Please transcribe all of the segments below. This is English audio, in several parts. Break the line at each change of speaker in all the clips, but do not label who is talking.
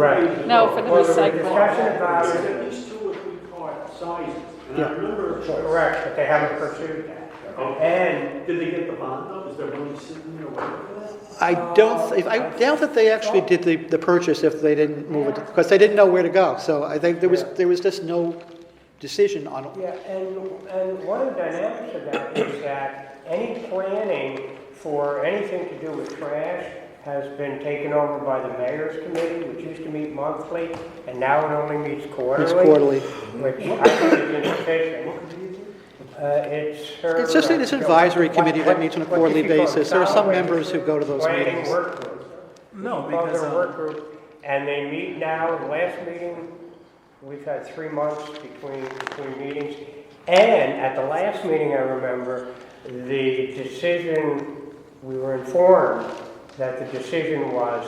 Right.
No, for the
Well, there was a
recycling.
Discussion
There's
about,
at least two or three car sizes, and
Yeah.
I remember.
correct, but they haven't pursued that.
Okay.
And
Did they get the bond though? Is there money sitting there waiting for that?
I don't, if- I doubt that they actually did the, the purchase if they didn't move it, because they didn't know where to go. So I think there was, there was just no decision on,
Yeah, and, and one of the dynamics of that is that any planning for anything to do with trash has been taken over by the mayor's committee, which used to meet monthly, and now it only meets quarterly.
it's quarterly.
Which I think is insufficient. Uh, it's her. uh,
It's just this advisory committee that meets on a
What- what
quarterly
you call
basis. There are some
solid
members who go to those
planning
meetings.
work group.
No,
Well,
because,
they're a
uh,
work group, and they meet now, the last meeting, we've had three months between, between meetings. And at the last meeting, I remember, the decision, we were informed that the decision was,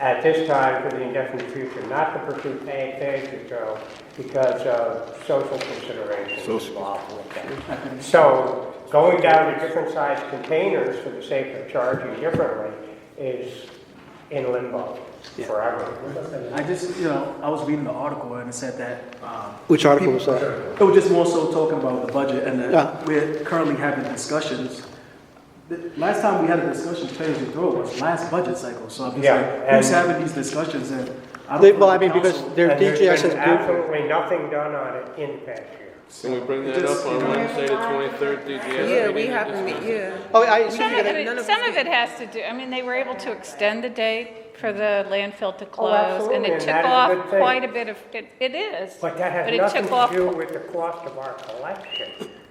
at this time, for the indefinite future, not to pursue paying tax return because of social considerations
Social.
involved with that. So going down to different size containers for the sake of charging differently is in limbo forever.
I just, you know, I was reading the article and it said that, um,
Which article was that?
it was just more so talking about the budget and
Yeah.
that we're currently having discussions. The Last time we had a discussion, page and throw was last budget cycle, so I'm just
Yeah,
like, who's
and-
having these discussions and? I don't
They,
feel
well, I
like
mean,
the
because
council-
their
And there's been
DGS has been,
Absolutely nothing done on it in the past year.
Can we bring
It
that
just-
up on Wednesday, the twenty-third, DGS?
Yeah,
meeting
we
and
haven't,
discuss
met-
it?
yeah.
oh, I assume
Some
you're
of
gonna,
none
it,
of
some
us
of it has to do, I mean, they were able to extend the date for the landfill to close,
Oh, absolutely,
and it
and
took
that is a good
off
thing.
quite a bit of, it, it is.
But that
But
has
it
nothing
took
to
off-
do with the cost of our collection,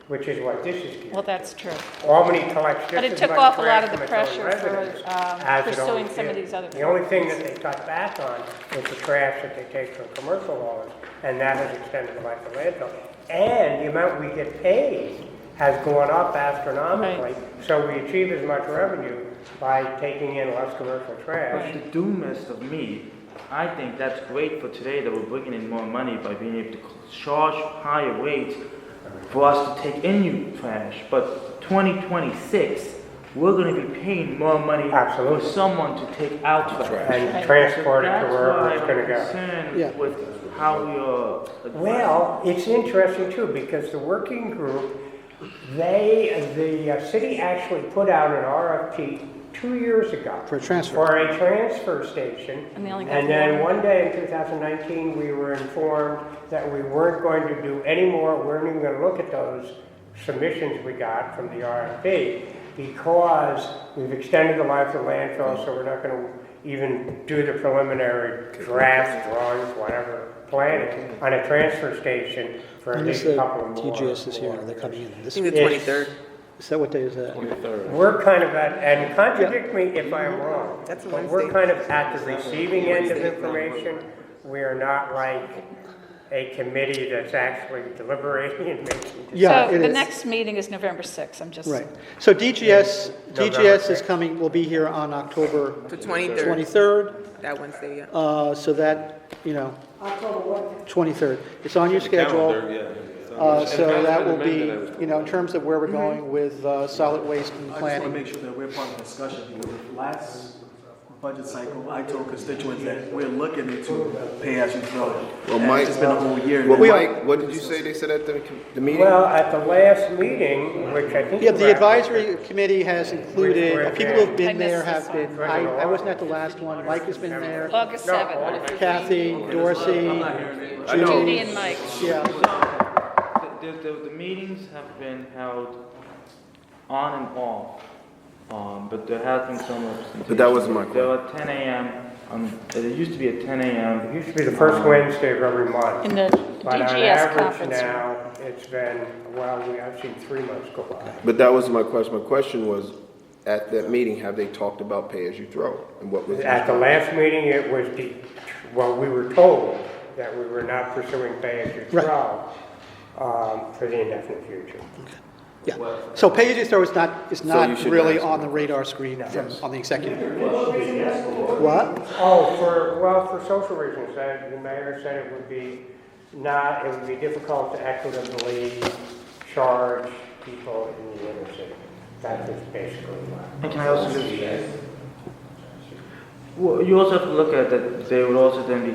which is what this is.
Well, that's true.
Albany collects
But
just
it
as
took
much
off a lot
trash
of the
from its own
pressure for,
residents
um,
as it
pursuing
always
some of
did.
these other
The only thing that they cut back on is the trash that they take from commercial haulers, and that has extended the life of landfill. And the amount we get paid has gone up astronomically, so we achieve as much revenue by taking in less commercial trash.
The doomest of me, I think that's great for today that we're bringing in more money by being able to c- charge higher rates for us to take in new trash. But 2026, we're going to be paying more money
Absolutely.
for someone to take out trash.
And transport it to
That's
wherever
why
it's
I'm
gonna go.
concerned
Yeah.
with how we are. addressing
Well, it's interesting too, because the working group, they, the uh, city actually put out an RFP two years ago.
For a transfer.
For a transfer station.
And they only got
And then
one.
one day in 2019, we were informed that we weren't going to do any more, we weren't even going to look at those submissions we got from the RFP because we've extended the life of the landfill, so we're not going to even do the preliminary draft drawings, whatever, planning on a transfer station for at
when is
least
the
a couple of more.
DGS is here, and they're coming in.
I
This,
think the
Yes.
23rd.
is that what day is that?
Twenty-third.
We're kind of at, and contradict me if I am wrong.
That's a
But we're
Wednesday.
kind of at the receiving end of information. We are not like a committee that's actually deliberating and making decisions.
Yeah,
So
it
the
is.
next meeting is November 6th, I'm just.
Right. So DGS,
November
DGS is
sixth.
coming, will be here on October
The 23rd,
23rd.
that Wednesday, yeah.
Uh, so that, you know, 23rd. It's on your schedule.
Calendar, yeah.
Uh, so
And
that will
amended, I was
be, you know, in terms of where we're
Mm-hmm.
going with, uh, solid waste and
I just want to
planning.
make sure that we're part of the discussion, because last budget cycle, I told constituents that we're looking into pay as you throw.
Well,
And
Mike-
It's been a whole year.
Well,
now.
Mike, what did you say they said at the, the meeting?
Well, at the last meeting, which I think.
Yeah,
you
the
were at,
advisory committee has
We're-
included, uh, people who've
I
been
missed
there
this
have been,
one.
I, I wasn't at the last one, Mike has been there,
August
No,
7th,
Kathy, Dorsey,
I know.
Judy and Mike.
yeah.
The, the, the, the meetings have been held on and off, um, but there has been some representation.
But that wasn't my
There were ten AM, um, it used to be at ten Um,
It
AM.
used to be the first Wednesday of every month.
In the
But on
DGS
average
conference room.
now, it's been, well, we- I've seen three months go by.
But that was my question. My question was, at that meeting, have they talked about pay as you throw? And what was?
At the last meeting, it was, de- well, we were told that we were not pursuing pay as you
Right.
throw um, for the indefinite future.
Yeah, so pay as you throw is not, is
you
not
should
really
ask
on the radar screen from, on the executive. What?
Oh, for, well, for social reasons, uh, the mayor said it would be not, it would be difficult to equitably charge people in the inner city. That is basically why.
And can I also just? Well, you also have to look at that, they would also then be